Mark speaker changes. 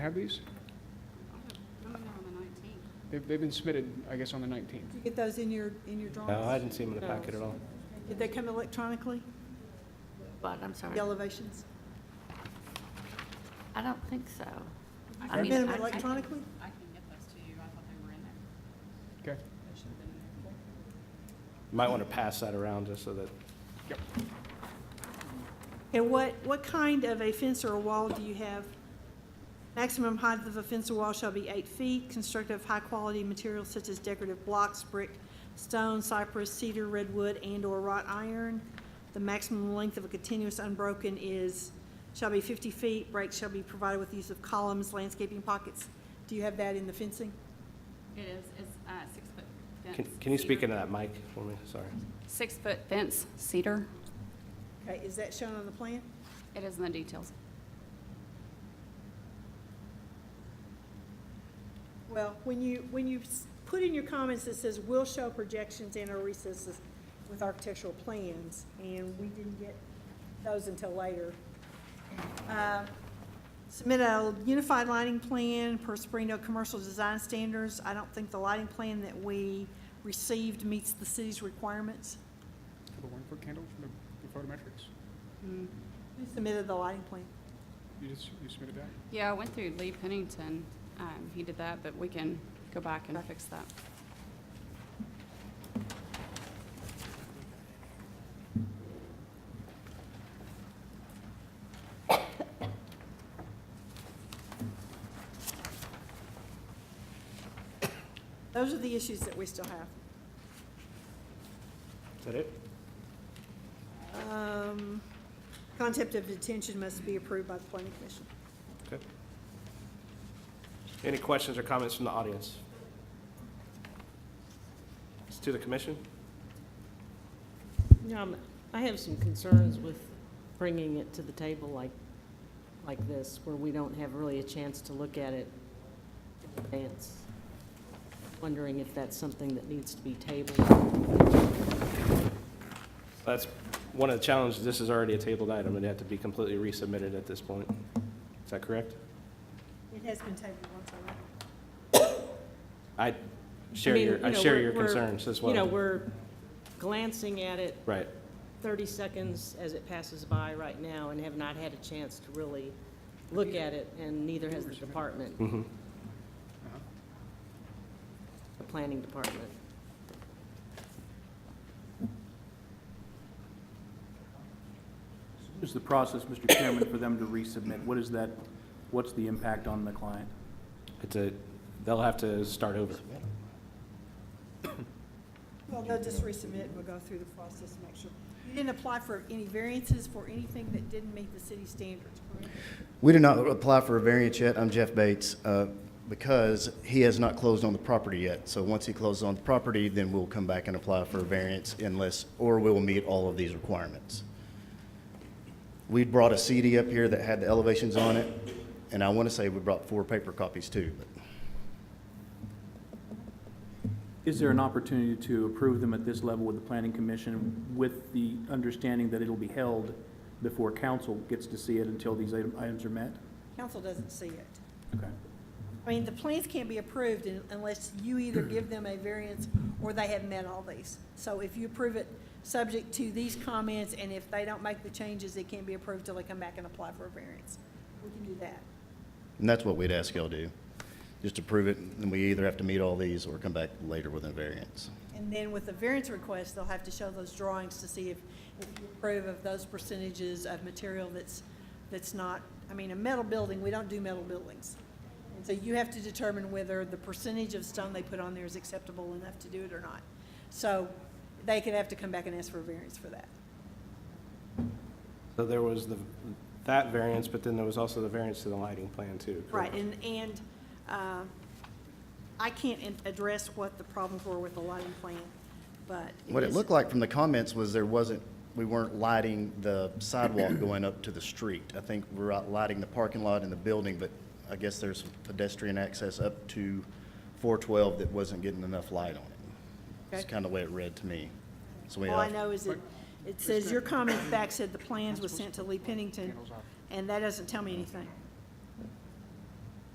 Speaker 1: Have these?
Speaker 2: No, no, on the nineteenth.
Speaker 1: They've, they've been submitted, I guess, on the 19th.
Speaker 3: Did you get those in your, in your drawings?
Speaker 4: No, I didn't see them in the packet at all.
Speaker 3: Did they come electronically,
Speaker 5: But I'm sorry,
Speaker 3: the elevations?
Speaker 5: I don't think so. I
Speaker 3: Have
Speaker 5: mean,
Speaker 3: they been
Speaker 5: I- I-
Speaker 3: electronically?
Speaker 2: I can get those to you. I thought they were in there.
Speaker 1: Okay.
Speaker 2: They should have been in there.
Speaker 4: You Might want to pass that around just so that,
Speaker 3: And what, what kind of a fence or a wall do you have? Maximum height of a fence or wall shall be eight feet, constructed of high-quality materials such as decorative blocks, brick, stone, cypress, cedar, redwood, and/or wrought iron. The maximum length of a continuous unbroken is, shall be fifty feet, breaks shall be provided with use of columns, landscaping pockets. Do you have that in the fencing?
Speaker 2: It is, it's uh six-foot fence.
Speaker 4: can can you speak
Speaker 2: cedar.
Speaker 4: into that mic for me? Sorry.
Speaker 2: Six-foot fence, cedar.
Speaker 3: Okay, is that shown on the plan?
Speaker 2: It is in the details.
Speaker 3: Well, when you, when you s- put in your comments that says we will show projections and or recesses with architectural plans, and we didn't get those until later. Uh, Submit a unified lighting plan per Springdale Commercial Design Standards. I don't think the lighting plan that we received meets the city's requirements.
Speaker 1: For the one-foot candle from the- the photometrics.
Speaker 3: Who submitted the lighting plan?
Speaker 1: You just, you submitted that?
Speaker 2: Yeah, I went through Lee Pennington. Um, he did that, but we can go back and fix that.
Speaker 3: Those are the issues that we still have.
Speaker 4: Is that it?
Speaker 3: Um, Concept of detention must be approved by the planning commission.
Speaker 4: Okay. Any questions or comments from the audience? It's to the commission?
Speaker 6: Yeah, I'm- I have some concerns with bringing it to the table like, like this, where we don't have really a chance to look at it in advance. Wondering if that's something that needs to be tabled.
Speaker 4: That's one of the challenges. This is already a tabled item. It'd have to be completely resubmitted at this point. Is that correct?
Speaker 3: It has been tabled once already.
Speaker 4: I share
Speaker 6: I mean,
Speaker 4: your,
Speaker 6: you
Speaker 4: I
Speaker 6: know,
Speaker 4: share
Speaker 6: we're-
Speaker 4: your
Speaker 6: we're-
Speaker 4: concerns as well.
Speaker 6: You know, we're glancing at it
Speaker 4: Right.
Speaker 6: 30 seconds as it passes by right now and have not had a chance to really look at it, and neither has the department,
Speaker 4: Mhm.
Speaker 6: the planning department.
Speaker 7: Is the process, Mr. Chairman, for them to resubmit, what is that, what's the impact on the client?
Speaker 4: It's a, they'll have to start over.
Speaker 3: Well, they'll just resubmit, and we'll go through the process and make sure. You didn't apply for any variances for anything that didn't meet the city standards, correct?
Speaker 8: We did not apply for a variance yet. I'm Jeff Bates, uh, because he has not closed on the property yet. So once he closes on the property, then we'll come back and apply for a variance unless, or we'll meet all of these requirements. We brought a CD up here that had the elevations on it, and I want to say we brought four paper copies too, but
Speaker 7: Is there an opportunity to approve them at this level with the planning commission with the understanding that it'll be held before council gets to see it until these item- items are met?
Speaker 3: Council doesn't see it.
Speaker 7: Okay.
Speaker 3: I mean, the plans can't be approved un- unless you either give them a variance or they have met all these. So if you approve it, subject to these comments, and if they don't make the changes, it can't be approved till they come back and apply for a variance. We can do that.
Speaker 8: and that's what we'd ask y'all to do. Just approve it, and we either have to meet all these or come back later with a variance.
Speaker 3: And then with the variance request, they'll have to show those drawings to see if, if you approve of those percentages of material that's, that's not, I mean, a metal building, we don't do metal buildings. And so you have to determine whether the percentage of stone they put on there is acceptable enough to do it or not. So they could have to come back and ask for a variance for that.
Speaker 4: So there was the, that variance, but then there was also the variance to the lighting plan too.
Speaker 3: Right,
Speaker 4: correct?
Speaker 3: and, and, uh, I can't in- address what the problems were with the lighting plan, but.
Speaker 8: What it
Speaker 3: is-
Speaker 8: looked like from the comments was there wasn't, we weren't lighting the sidewalk going up to the street. I think we're out lighting the parking lot and the building, but I guess there's pedestrian access up to 412 that wasn't getting enough light on it. That's
Speaker 3: Okay.
Speaker 8: kind of the way it read to me. So we
Speaker 3: All I
Speaker 8: have-
Speaker 3: know is that it says your comment back said the plans was sent to Lee Pennington, and that doesn't tell me anything.